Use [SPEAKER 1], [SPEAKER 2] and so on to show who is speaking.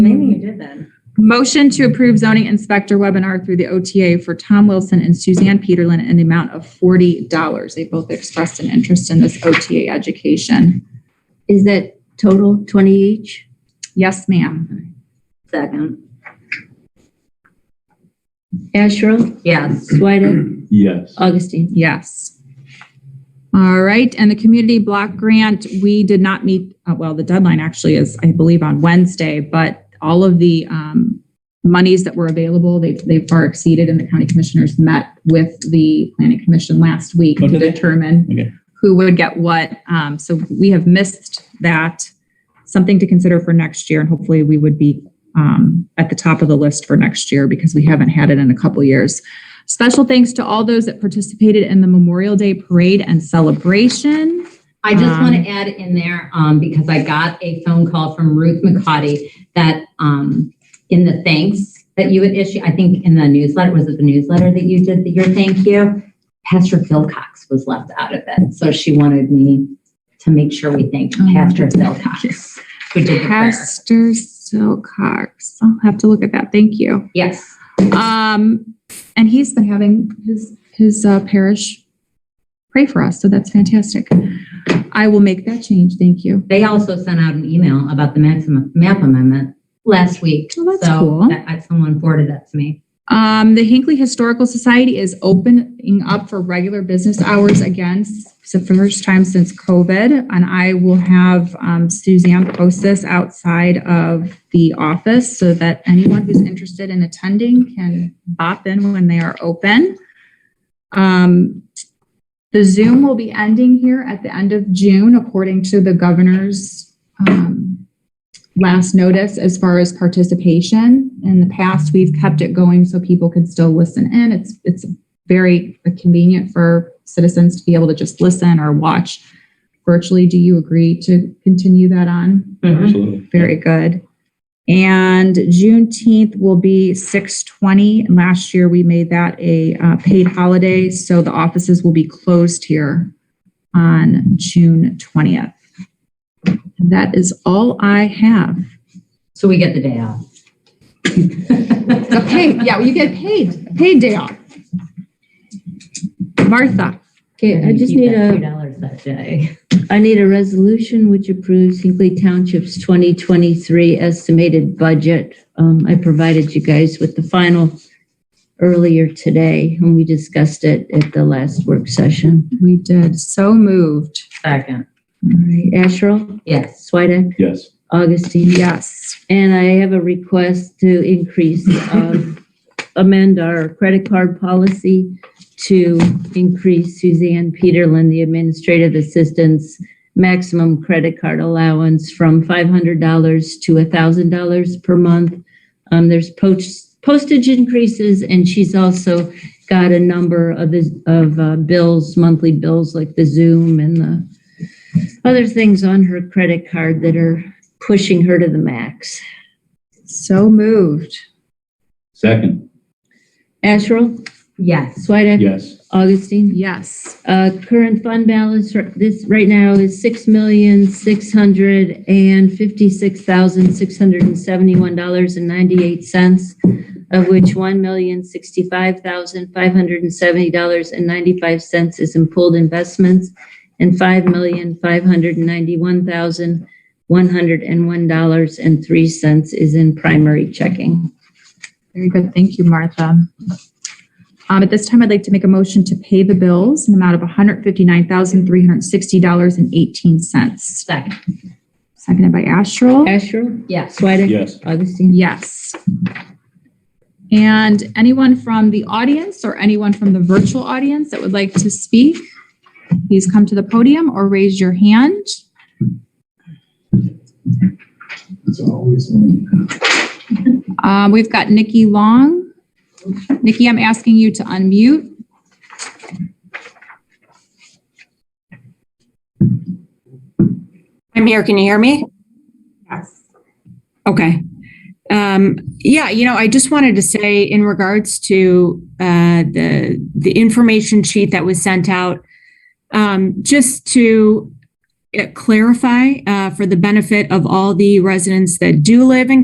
[SPEAKER 1] Mm-hmm.
[SPEAKER 2] Motion to approve zoning inspector webinar through the OTA for Tom Wilson and Suzanne Peterlin in the amount of forty dollars. They both expressed an interest in this OTA education.
[SPEAKER 1] Is that total 20 each?
[SPEAKER 2] Yes, ma'am.
[SPEAKER 1] Second. Asherle?
[SPEAKER 3] Yes.
[SPEAKER 1] Swedek?
[SPEAKER 4] Yes.
[SPEAKER 1] Augustine?
[SPEAKER 2] Yes. All right, and the community block grant, we did not meet, uh, well, the deadline actually is, I believe, on Wednesday, but all of the um, monies that were available, they, they far exceeded, and the county commissioners met with the planning commission last week
[SPEAKER 4] Oh,
[SPEAKER 2] to
[SPEAKER 4] did they?
[SPEAKER 2] determine
[SPEAKER 4] Okay.
[SPEAKER 2] who would get what. Um, So we have missed that, something to consider for next year, and hopefully we would be um, at the top of the list for next year because we haven't had it in a couple years. Special thanks to all those that participated in the Memorial Day Parade and celebration.
[SPEAKER 3] I just want
[SPEAKER 2] Um,
[SPEAKER 3] to add in there, um, because I got a phone call from Ruth McCotty that, um, in the thanks that you had issued, I think in the newsletter, was it the newsletter that you did, your thank you? Pastor Philcox was left out of it, so she wanted me to make sure we thanked
[SPEAKER 2] Oh,
[SPEAKER 3] Pastor Philcox. Who did the prayer.
[SPEAKER 2] Pastor Silcox. I'll have to look at that. Thank you.
[SPEAKER 3] Yes,
[SPEAKER 2] Um, and he's been having his, his uh, parish pray for us. So that's fantastic. I will make that change. Thank you.
[SPEAKER 3] they also sent out an email about the maximum map amendment last week.
[SPEAKER 2] Oh, that's
[SPEAKER 3] so
[SPEAKER 2] cool.
[SPEAKER 3] that- I- Someone forwarded that to me.
[SPEAKER 2] Um, the Hinkley Historical Society is opening up for regular business hours again. It's the first time since COVID, and I will have um, Suzanne post this outside of the office so that anyone who's interested in attending can bop in when they are open. Um, the Zoom will be ending here at the end of June, according to the governor's um, last notice as far as participation. In the past, we've kept it going so people can still listen in. It's, it's very convenient for citizens to be able to just listen or watch virtually. Do you agree to continue that on?
[SPEAKER 3] Mm-hmm.
[SPEAKER 1] Mm-hmm.
[SPEAKER 4] Absolutely.
[SPEAKER 2] Very good. And Juneteenth will be 6:20. And Last year, we made that a uh, paid holiday, so the offices will be closed here on June 20th. And That is all I have.
[SPEAKER 3] So we get the day off.
[SPEAKER 2] A paid, yeah, you get paid, a paid day off. Martha,
[SPEAKER 1] Okay, I just need
[SPEAKER 3] Two
[SPEAKER 1] a,
[SPEAKER 3] dollars that day.
[SPEAKER 1] I need a resolution which approves Hinkley Township's 2023 estimated budget. Um, I provided you guys with the final earlier today, and we discussed it at the last work session.
[SPEAKER 2] we did, so moved.
[SPEAKER 3] Second.
[SPEAKER 1] All right, Asherle?
[SPEAKER 3] Yes.
[SPEAKER 1] Swedek?
[SPEAKER 4] Yes.
[SPEAKER 1] Augustine?
[SPEAKER 2] Yes.
[SPEAKER 1] And I have a request to increase, um, amend our credit card policy to increase Suzanne Peterlin, the administrative assistant's maximum credit card allowance from $500 to $1,000 per month. Um, There's poach- postage increases, and she's also got a number of the, of uh, bills, monthly bills like the Zoom and the other things on her credit card that are pushing her to the max.
[SPEAKER 2] So moved.
[SPEAKER 4] Second.
[SPEAKER 1] Asherle,
[SPEAKER 3] Yes.
[SPEAKER 1] Swedek,
[SPEAKER 4] Yes.
[SPEAKER 1] Augustine.
[SPEAKER 2] Yes.
[SPEAKER 1] Uh, current fund balance r- this right now is six million six hundred and fifty-six thousand six hundred and seventy-one dollars and ninety-eight cents, of which one million sixty-five thousand five hundred and seventy dollars and ninety-five cents is in pooled investments, and five million five hundred and ninety-one thousand one hundred and one dollars and three cents is in primary checking.
[SPEAKER 2] Very good, thank you, Martha. Um, at this time, I'd like to make a motion to pay the bills in the amount of $159,360.18.
[SPEAKER 3] Second.
[SPEAKER 2] Seconded by Astral.
[SPEAKER 1] Asherle,
[SPEAKER 3] Yes.
[SPEAKER 1] Swedek,
[SPEAKER 4] Yes.
[SPEAKER 1] Augustine.
[SPEAKER 2] Yes. And anyone from the audience or anyone from the virtual audience that would like to speak, please come to the podium or raise your hand.
[SPEAKER 5] It's always on.
[SPEAKER 2] Um, we've got Nikki Long. Nikki, I'm asking you to unmute.
[SPEAKER 6] I'm here. Can you hear me?
[SPEAKER 2] Yes.
[SPEAKER 6] Okay. Um, yeah, you know, I just wanted to say in regards to uh, the the information sheet that was sent out, um, just to uh, clarify uh, for the benefit of all the residents that do live in